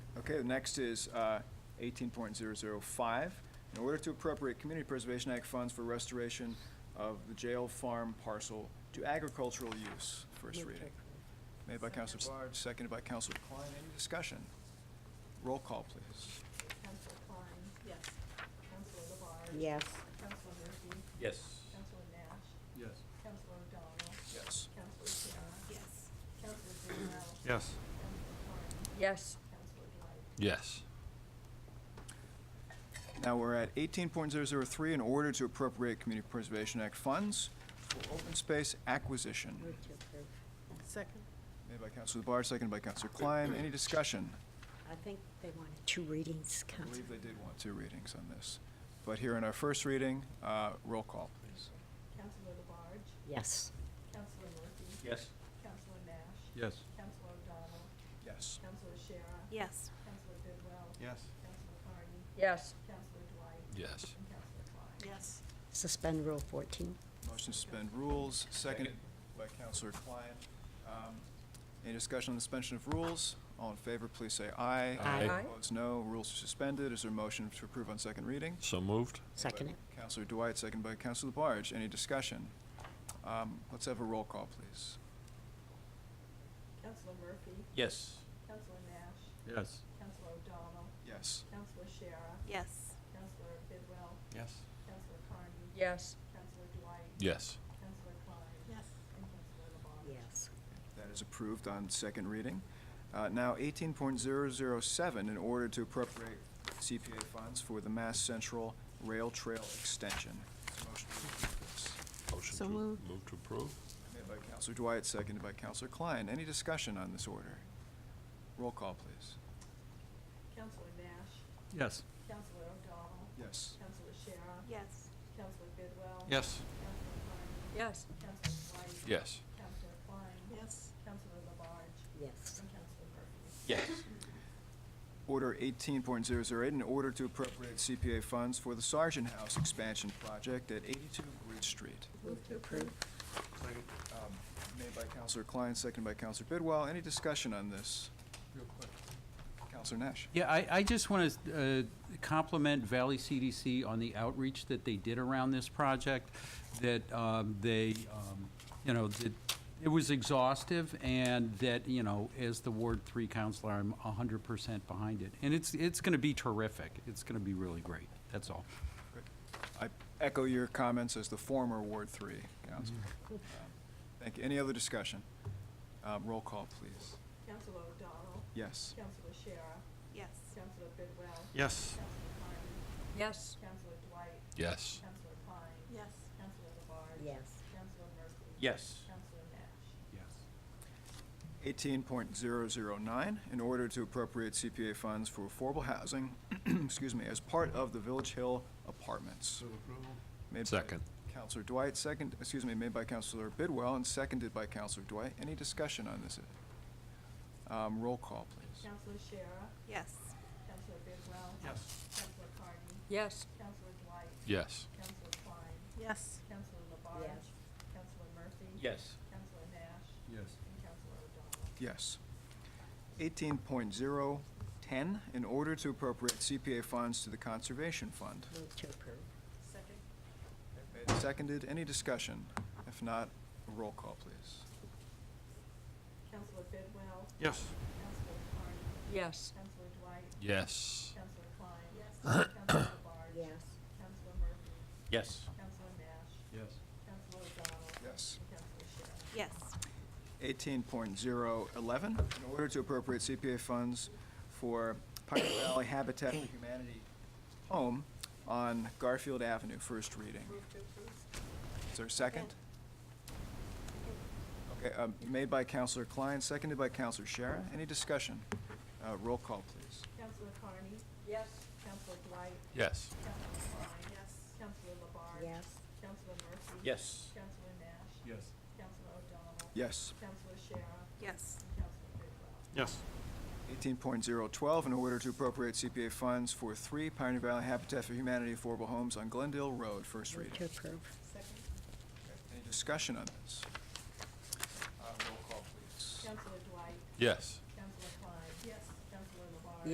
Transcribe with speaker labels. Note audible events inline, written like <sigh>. Speaker 1: Okay, the next is uh, 18.005. In order to appropriate Community Preservation Act funds for restoration of the jail farm parcel to agricultural use, first reading. Made by Counselor, Bard, seconded by Counselor Klein. Any discussion? Roll call, please.
Speaker 2: Council Klein. Yes. Council LeBarge.
Speaker 3: Yes.
Speaker 2: Council Murphy.
Speaker 4: Yes.
Speaker 2: Council Nash.
Speaker 1: Yes.
Speaker 2: Council O'Donnell.
Speaker 1: Yes.
Speaker 2: Council Shara. Yes. Council Council Klein.
Speaker 4: Yes.
Speaker 3: Yes.
Speaker 2: Council Dwight.
Speaker 4: Yes.
Speaker 1: Now we're at 18.003, in order to appropriate Community Preservation Act funds for open space acquisition.
Speaker 3: Move to approve.
Speaker 5: Second?
Speaker 1: Made by Counselor Labarge, seconded by Counselor Klein. Any discussion?
Speaker 3: I think they wanted two readings,
Speaker 1: I
Speaker 3: Council.
Speaker 1: believe they did want two readings on this. But here in our first reading, uh, roll call, please.
Speaker 2: Council LeBarge.
Speaker 3: Yes.
Speaker 2: Council Murphy.
Speaker 4: Yes.
Speaker 2: Council Nash.
Speaker 4: Yes.
Speaker 2: Council O'Donnell.
Speaker 1: Yes.
Speaker 2: Council Shara.
Speaker 5: Yes.
Speaker 2: Council Bidwell.
Speaker 1: Yes.
Speaker 2: Council Carney.
Speaker 3: Yes.
Speaker 2: Council Dwight.
Speaker 4: Yes.
Speaker 2: And Council Klein.
Speaker 5: Yes.
Speaker 3: Suspend Rule 14.
Speaker 1: Motion to suspend rules, seconded by Counselor Klein. Um, Any discussion on the suspension of rules? All in favor, please say aye.
Speaker 3: Aye. Aye.
Speaker 1: Opposed, no. Rules are suspended. Is there a motion to approve on second reading?
Speaker 4: So moved?
Speaker 3: Second it.
Speaker 1: Counselor Dwight, seconded by Counselor Labarge. Any discussion? Um, Let's have a roll call, please.
Speaker 2: Council Murphy.
Speaker 4: Yes.
Speaker 2: Council Nash.
Speaker 4: Yes.
Speaker 2: Council O'Donnell.
Speaker 1: Yes.
Speaker 2: Councilor Shara.
Speaker 5: Yes.
Speaker 2: Councilor Bidwell.
Speaker 4: Yes.
Speaker 2: Councilor Carney.
Speaker 3: Yes.
Speaker 2: Councilor Dwight.
Speaker 4: Yes.
Speaker 2: Councilor Klein.
Speaker 5: Yes.
Speaker 2: And Councilor LaBarge.
Speaker 3: Yes.
Speaker 1: That is approved on second reading. Uh, Now, 18.007, in order to appropriate CPA funds for the Mass Central Rail Trail Extension. Is there a Motion to approve this.
Speaker 4: Motion
Speaker 5: So
Speaker 4: to,
Speaker 5: moved.
Speaker 4: move to approve?
Speaker 1: Made by Counselor Dwight, seconded by Counselor Klein. Any discussion on this order? Roll call, please.
Speaker 2: Councilor Nash.
Speaker 4: Yes.
Speaker 2: Councilor O'Donnell.
Speaker 1: Yes.
Speaker 2: Councilor Shara.
Speaker 5: Yes.
Speaker 2: Councilor Bidwell.
Speaker 4: Yes.
Speaker 2: Councilor Carney.
Speaker 3: Yes.
Speaker 2: Councilor Dwight.
Speaker 4: Yes.
Speaker 2: Councilor Klein.
Speaker 5: Yes.
Speaker 2: Councilor LaBarge.
Speaker 3: Yes.
Speaker 1: <laughs>
Speaker 2: And Councilor Murphy.
Speaker 4: Yes.
Speaker 1: Order 18.008, in order to appropriate CPA funds for the Sergeant House expansion project at 82 Bridge Street.
Speaker 3: Move to approve.
Speaker 1: Um, Made by Counselor Klein, seconded by Counselor Bidwell. Any discussion on this? Real quick. Counselor Nash?
Speaker 6: Yeah, I, I just want to compliment Valley CDC on the outreach that they did around this project, that um, they, um, you know, that it was exhaustive, and that, you know, as the Ward Three counselor, I'm hundred percent behind it. And it's, it's going to be terrific. It's going to be really great. That's all.
Speaker 1: I echo your comments as the former Ward 3 counselor.
Speaker 3: Mm-hmm.
Speaker 1: Um, Thank you. Any other discussion? Um, Roll call, please.
Speaker 2: Councilor O'Donnell.
Speaker 1: Yes.
Speaker 2: Councilor Shara.
Speaker 5: Yes.
Speaker 2: Councilor Bidwell.
Speaker 4: Yes.
Speaker 2: Councilor Carney.
Speaker 3: Yes.
Speaker 2: Councilor Dwight.
Speaker 4: Yes.
Speaker 2: Councilor Klein.
Speaker 5: Yes.
Speaker 2: Councilor Labarge.
Speaker 3: Yes.
Speaker 2: Councilor Murphy.
Speaker 4: Yes.
Speaker 2: Councilor Nash.
Speaker 6: Yes.
Speaker 1: 18.009, in order to appropriate CPA funds for affordable housing, <clears throat> excuse me, as part of the Village Hill Apartments. Made by
Speaker 4: Second.
Speaker 1: Counselor Dwight, second, excuse me, made by Counselor Bidwell and seconded by Counselor Dwight. Any discussion on this? Um, Roll call, please.
Speaker 2: Councilor Shara.
Speaker 5: Yes.
Speaker 2: Councilor Bidwell.
Speaker 4: Yes.
Speaker 2: Councilor Carney.
Speaker 3: Yes.
Speaker 2: Councilor Dwight.
Speaker 4: Yes.
Speaker 2: Councilor Klein.
Speaker 5: Yes.
Speaker 2: Councilor Labarge.
Speaker 3: Yes.
Speaker 2: Councilor Murphy.
Speaker 4: Yes.
Speaker 2: Councilor Nash.
Speaker 6: Yes.
Speaker 2: And Councilor O'Donnell.
Speaker 1: Yes. 18.010, in order to appropriate CPA funds to the Conservation Fund.
Speaker 3: Move to approve.
Speaker 5: Second?
Speaker 1: Made and Seconded, any discussion? If not, roll call, please.
Speaker 2: Councilor Bidwell.
Speaker 4: Yes.
Speaker 2: Councilor Carney.
Speaker 3: Yes.
Speaker 2: Councilor Dwight.
Speaker 4: Yes.
Speaker 2: Councilor Klein. Yes. Councilor Labarge.
Speaker 3: Yes.
Speaker 2: Councilor Murphy.
Speaker 4: Yes.
Speaker 2: Councilor Nash.
Speaker 6: Yes.
Speaker 2: Councilor O'Donnell.
Speaker 1: Yes.
Speaker 2: And Councilor Shara.
Speaker 5: Yes.
Speaker 1: 18.011, in order to appropriate CPA funds for Pioneer Valley Habitat for Humanity home on Garfield Avenue, first reading. Is there a second? Okay, um, made by Counselor Klein, seconded by Counselor Shara. Any discussion? Uh, Roll call, please.
Speaker 2: Councilor Carney.
Speaker 3: Yes.
Speaker 2: Councilor Dwight.
Speaker 4: Yes.
Speaker 2: Councilor Klein.
Speaker 5: Yes.
Speaker 2: Counselor Labarge.
Speaker 3: Yes.
Speaker 2: Councilor Murphy.
Speaker 4: Yes.
Speaker 2: Councilor Nash.
Speaker 6: Yes.
Speaker 2: Councilor O'Donnell.
Speaker 1: Yes.
Speaker 2: Councilor Shara.
Speaker 5: Yes.
Speaker 2: And Councilor Bidwell.
Speaker 4: Yes.
Speaker 1: 18.012, in order to appropriate CPA funds for three Pioneer Valley Habitat for Humanity affordable homes on Glendale Road, first reading.
Speaker 3: Move to approve.
Speaker 2: Second.
Speaker 1: Any discussion on this? Uh, Roll call, please.
Speaker 2: Councilor Dwight.
Speaker 4: Yes.